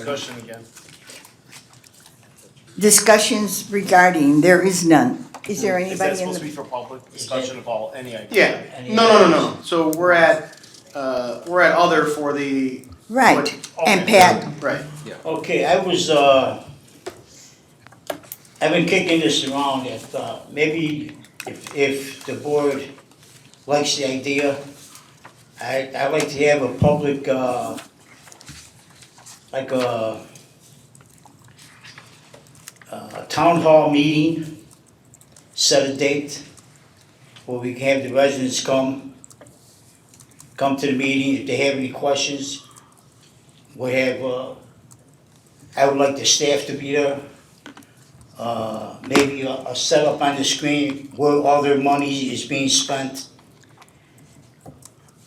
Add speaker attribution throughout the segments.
Speaker 1: Discussion again.
Speaker 2: Discussions regarding, there is none. Is there
Speaker 1: Is that
Speaker 2: anybody in
Speaker 1: supposed to be
Speaker 2: the?
Speaker 1: for public discussion of all, any item?
Speaker 3: Yeah, no, no, no, no, so we're at, uh, we're at other for the,
Speaker 2: Right, and
Speaker 1: Okay.
Speaker 2: Pat,
Speaker 3: right,
Speaker 4: Okay, I was, uh, I've been kicking this around that, uh, maybe if, if the board likes the idea, I, I'd like to have a public, uh, like a, a town hall meeting, set a date where we can have the residents come, come to the meeting, if they have any questions, we have, uh, I would like the staff to be there. Uh, maybe a, a setup on the screen where all their money is being spent.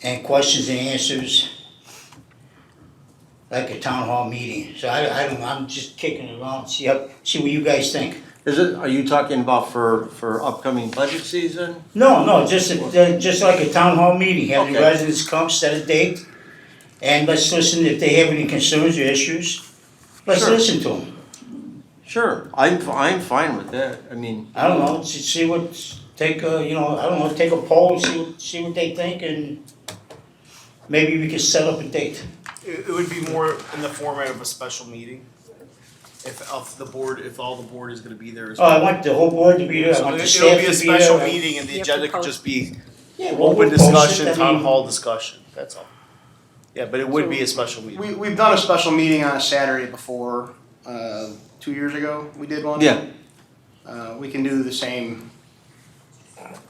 Speaker 4: And questions and answers. Like a town hall meeting, so I, I don't, know, I'm just kicking it around, see how, see what you guys think.
Speaker 5: Is it, are you talking about for, for upcoming budget season?
Speaker 4: No, no, just, a- just like a town hall meeting, have the
Speaker 5: Okay.
Speaker 4: residents come, set a date. And let's listen if they have any concerns or issues, let's
Speaker 5: Sure.
Speaker 4: listen to them.
Speaker 5: Sure, I'm, f- I'm fine with that, I mean,
Speaker 4: I don't know, see, see what, take a, you know, I don't know, take a poll, see, what- see what they think, and maybe we can set up a date.
Speaker 1: It, it would be more in the format of a special meeting. If, if the board, if all the board is gonna be there as
Speaker 4: Oh, I
Speaker 1: well.
Speaker 4: want the whole board to be there, I
Speaker 1: So
Speaker 4: want the
Speaker 1: it-
Speaker 4: staff
Speaker 1: It'll be
Speaker 4: to
Speaker 1: a
Speaker 4: be there.
Speaker 1: special
Speaker 4: I-
Speaker 1: meeting and the
Speaker 6: You have to
Speaker 1: agenda could
Speaker 6: post.
Speaker 1: just be
Speaker 4: Yeah, we'll-
Speaker 1: open
Speaker 4: we'll post it,
Speaker 1: discussion,
Speaker 4: I
Speaker 1: town
Speaker 4: mean,
Speaker 1: hall discussion, that's all. Yeah, but it would be a special meeting.
Speaker 3: we, we've done a special meeting on a Saturday before, uh, two years ago, we did one.
Speaker 5: yeah,
Speaker 3: Uh, we can do the same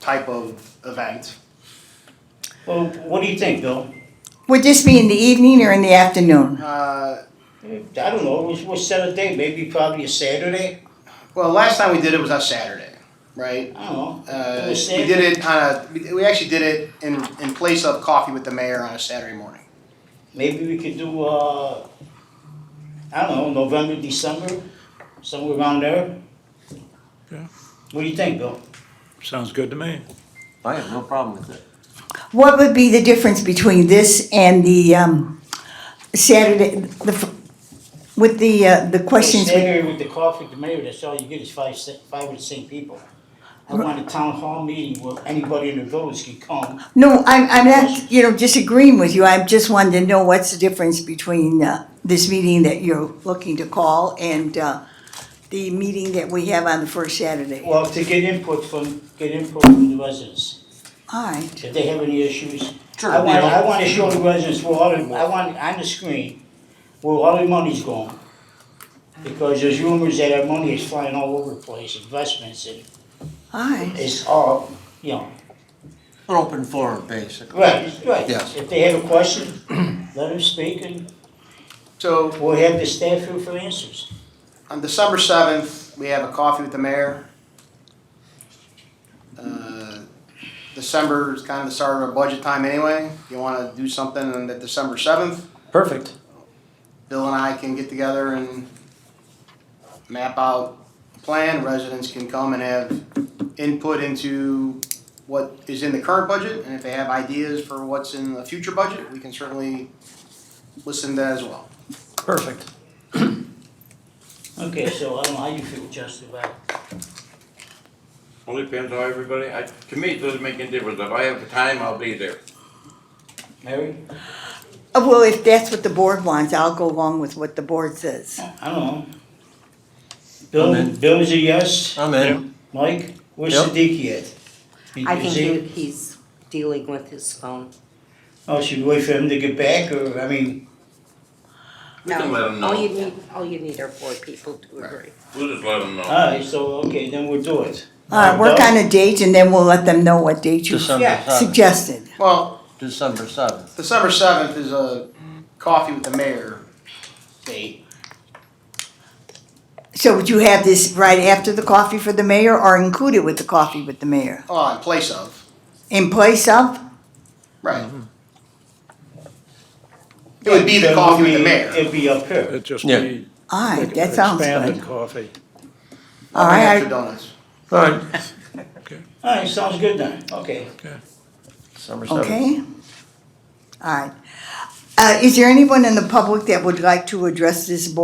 Speaker 3: type of event.
Speaker 4: Well, what do you think, Bill?
Speaker 2: would this be in the evening or in the afternoon?
Speaker 3: Uh,
Speaker 4: I don't know, we'll, we'll set a date, maybe probably a Saturday,
Speaker 3: well, last time we did it was on Saturday, right?
Speaker 4: I don't know.
Speaker 3: Uh,
Speaker 4: It
Speaker 3: we
Speaker 4: was
Speaker 3: did it on a, we- we actually did it in, in place of coffee with the mayor on a Saturday morning.
Speaker 4: Maybe we could do, uh, I don't know, November, December, somewhere around there.
Speaker 7: Yeah.
Speaker 4: What do you think, Bill?
Speaker 7: Sounds good to me.
Speaker 5: I have no problem with it.
Speaker 2: What would be the difference between this and the, um, Saturday, the, f- with the, uh, the questions?
Speaker 4: Stay
Speaker 2: we-
Speaker 4: here with the coffee, the mayor, that's all you get is five, si- five or six people. I want a town hall meeting where anybody in the village can come.
Speaker 2: No, I'm, I'm not, you know, disagreeing with you, I just wanted to know what's the difference between, uh, this meeting that you're looking to call and, uh, the meeting that we have on the first Saturday. All
Speaker 4: Well, to get input from, get input from the residents,
Speaker 2: right.
Speaker 4: if they have any issues.
Speaker 5: Sure,
Speaker 4: I want,
Speaker 5: you know.
Speaker 4: I want to show the residents where all the, I want on the screen where all the money's going. Because there's rumors that our money is flying all over the place, investments, and
Speaker 2: Aye,
Speaker 4: it's all, you know,
Speaker 5: An open forum, basically.
Speaker 4: right, right.
Speaker 5: Yes.
Speaker 4: If they have a question, let them speak and
Speaker 3: So
Speaker 4: we'll have the staff here for answers.
Speaker 3: On December seventh, we have a coffee with the mayor. Uh, December is kind of the start of our budget time anyway. You wanna do something on that December seventh,
Speaker 5: Perfect.
Speaker 3: Bill and I can get together and map out a plan. Residents can come and have input into what is in the current budget, and if they have ideas for what's in the future budget, we can certainly listen to that as well.
Speaker 5: Perfect.
Speaker 4: Okay, so I don't know how you feel, Justin, about,
Speaker 8: Well, it depends how everybody, I, to me, it doesn't make any difference. If I have the time, I'll be there.
Speaker 4: Mary?
Speaker 2: Uh, well, if that's what the board wants, I'll go along with what the board says.
Speaker 4: I don't know.
Speaker 5: I'm
Speaker 4: Bill,
Speaker 5: in.
Speaker 4: Bill is a yes,
Speaker 5: I'm in,
Speaker 4: Mike, where's
Speaker 5: Yep.
Speaker 4: Siddiqui at? Is-
Speaker 6: I
Speaker 4: is
Speaker 6: think
Speaker 4: he-
Speaker 6: he- he's dealing with his phone.
Speaker 4: Oh, should we wait for him to get back, or, I mean,
Speaker 8: We can
Speaker 6: No,
Speaker 8: let him
Speaker 6: All
Speaker 8: know.
Speaker 6: you need, all you need are four people to agree.
Speaker 8: We'll just let them know.
Speaker 4: alright, so, okay, then we'll do it.
Speaker 2: Uh, work on a date and then we'll let them know what date you
Speaker 5: December seventh,
Speaker 2: suggested.
Speaker 3: Well,
Speaker 5: December seventh.
Speaker 3: December seventh is a coffee with the mayor.
Speaker 4: Date.
Speaker 2: So would you have this right after the coffee for the mayor or included with the coffee with the mayor?
Speaker 3: Oh, in place of.
Speaker 2: In place of?
Speaker 3: Right.
Speaker 2: Mm-hmm.
Speaker 3: It would be the
Speaker 4: Then
Speaker 3: coffee with
Speaker 4: it'll
Speaker 3: the
Speaker 4: be-
Speaker 3: mayor.
Speaker 4: It'd be up here.
Speaker 7: It'd just
Speaker 5: Yeah.
Speaker 7: be
Speaker 2: Aye,
Speaker 7: like
Speaker 2: that sounds
Speaker 7: expanded
Speaker 2: good.
Speaker 7: coffee.
Speaker 2: All right, I-
Speaker 3: Extra donuts.
Speaker 5: All right.
Speaker 4: Alright, sounds good then, okay.
Speaker 5: December seventh.
Speaker 2: Okay? All right. Uh, is there anyone in the public that would like to address this board?